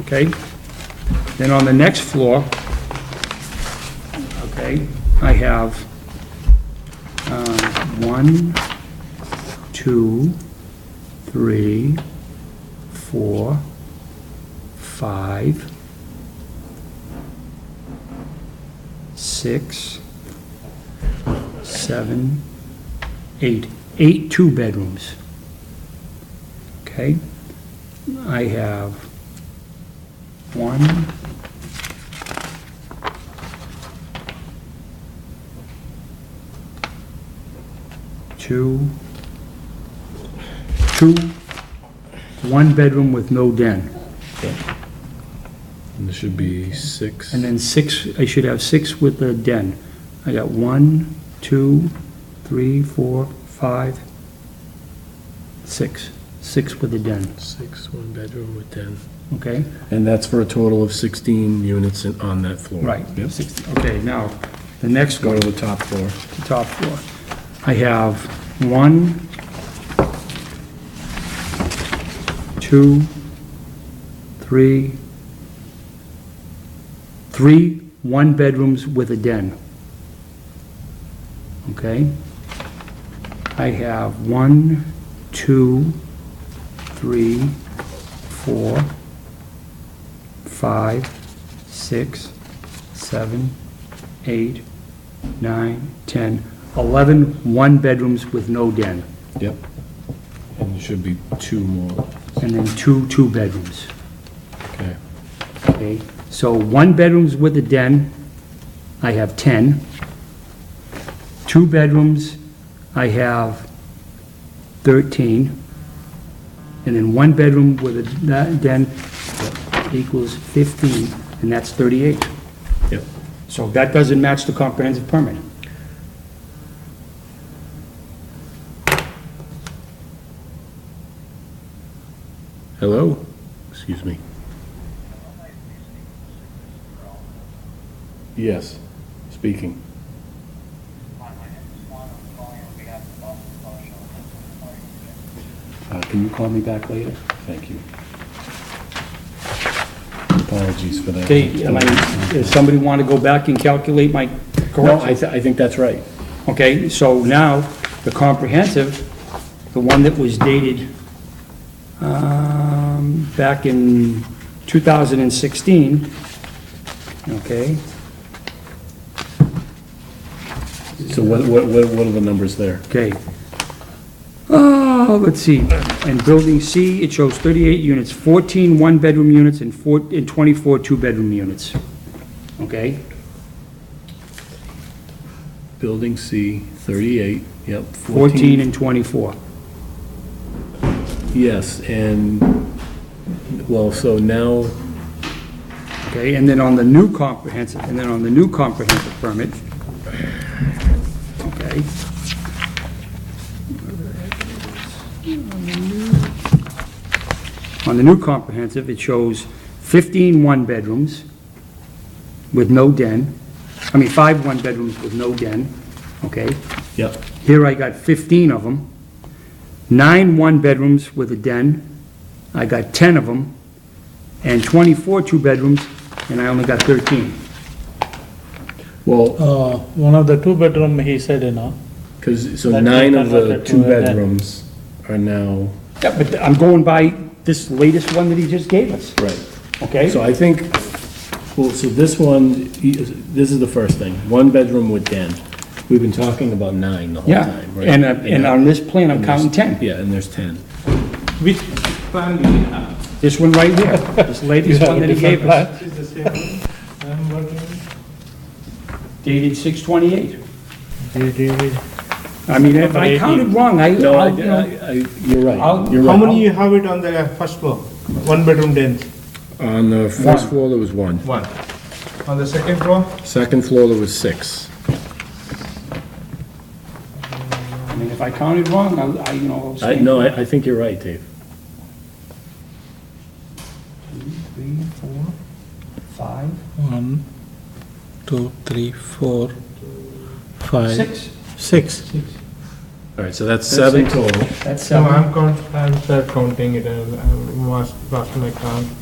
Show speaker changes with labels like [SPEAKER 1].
[SPEAKER 1] okay? Then on the next floor, okay, I have uh, one, two, three, four, five, six, seven, eight, eight two-bedrooms. Okay? I have one, two, two, one bedroom with no den.
[SPEAKER 2] And there should be six.
[SPEAKER 1] And then six, I should have six with the den. I got one, two, three, four, five, six. Six with the den,
[SPEAKER 2] Six, one bedroom with ten.
[SPEAKER 1] okay?
[SPEAKER 2] And that's for a total of 16 units in- on that floor.
[SPEAKER 1] Right.
[SPEAKER 2] Yep.
[SPEAKER 1] Six- Okay, now, the next
[SPEAKER 2] Go
[SPEAKER 1] one,
[SPEAKER 2] to the top floor.
[SPEAKER 1] the top floor. I have one, two, three, three one-bedrooms with a den. Okay? I have one, two, three, four, five, six, seven, eight, nine, 10, 11 one-bedrooms with no den,
[SPEAKER 2] Yep. And there should be two more.
[SPEAKER 1] and then two two-bedrooms.
[SPEAKER 2] Okay.
[SPEAKER 1] Okay, so one bedrooms with a den, I have 10. Two bedrooms, I have 13. And then one bedroom with a da- den equals 15, and that's 38.
[SPEAKER 2] Yep.
[SPEAKER 1] So that doesn't match the comprehensive permit.
[SPEAKER 2] Hello? Excuse me. Yes, speaking.
[SPEAKER 1] Uh, Can you call me back later?
[SPEAKER 2] Thank you. Apologies for that.
[SPEAKER 1] Okay, am I, does somebody want to go back and calculate my
[SPEAKER 2] No, I,
[SPEAKER 1] correction?
[SPEAKER 2] thi- I think that's right.
[SPEAKER 1] Okay, so now, the comprehensive, the one that was dated um, back in 2016, okay?
[SPEAKER 2] So what, what, what what are the numbers there?
[SPEAKER 1] Okay. Oh, let's see, and building C, it shows 38 units, 14 one-bedroom units and four, and 24 two-bedroom units. Okay?
[SPEAKER 2] Building C, 38, yep.
[SPEAKER 1] 14 and 24.
[SPEAKER 2] Yes, and, well, so now,
[SPEAKER 1] Okay, and then on the new comprehensive, and then on the new comprehensive permit, okay? On the new comprehensive, it shows 15 one-bedrooms with no den, I mean, five one-bedrooms with no den, okay?
[SPEAKER 2] yep,
[SPEAKER 1] Here I got 15 of them, nine one-bedrooms with a den, I got 10 of them, and 24 two-bedrooms, and I only got 13.
[SPEAKER 2] well,
[SPEAKER 3] Uh, One of the two-bedroom, he said, you know,
[SPEAKER 2] because, so
[SPEAKER 3] That
[SPEAKER 2] nine
[SPEAKER 3] we
[SPEAKER 2] of the
[SPEAKER 3] converted to a den.
[SPEAKER 2] two-bedrooms are now,
[SPEAKER 1] Yeah, but I'm going by this latest one that he just gave us,
[SPEAKER 2] right.
[SPEAKER 1] okay?
[SPEAKER 2] So I think, well, so this one, e, this is the first thing, one bedroom with den. We've been talking about nine the whole
[SPEAKER 1] Yeah,
[SPEAKER 2] time, right?
[SPEAKER 1] and, uh, and on this plan, I'm
[SPEAKER 2] and there's-
[SPEAKER 1] counting 10.
[SPEAKER 2] Yeah, and there's 10.
[SPEAKER 4] Which plan do you have?
[SPEAKER 1] This one right here, this latest one that he gave us,
[SPEAKER 4] Is the same one? I'm wondering.
[SPEAKER 1] dated 628.
[SPEAKER 3] JDV.
[SPEAKER 1] I mean, if I
[SPEAKER 3] Number
[SPEAKER 1] counted
[SPEAKER 3] 18.
[SPEAKER 1] wrong, I,
[SPEAKER 2] No, I,
[SPEAKER 1] I'll, you know,
[SPEAKER 2] I, I- you're right,
[SPEAKER 1] I'll-
[SPEAKER 2] you're
[SPEAKER 4] How
[SPEAKER 2] right.
[SPEAKER 4] many you have it on the first floor? One bedroom den?
[SPEAKER 2] On the first floor, there was one.
[SPEAKER 4] One. On the second floor?
[SPEAKER 2] Second floor, there was six.
[SPEAKER 1] I mean, if I counted wrong, I, I, you know, I'll
[SPEAKER 2] I,
[SPEAKER 1] stand.
[SPEAKER 2] no, I, I think you're right, Dave.
[SPEAKER 1] Three, four, five,
[SPEAKER 3] One, two, three, four, five,
[SPEAKER 1] six.
[SPEAKER 3] six.
[SPEAKER 2] All right, so that's seven total.
[SPEAKER 1] That's
[SPEAKER 4] No,
[SPEAKER 1] seven.
[SPEAKER 4] uh, I'm count, I'm start counting it, as- I must, lost my count.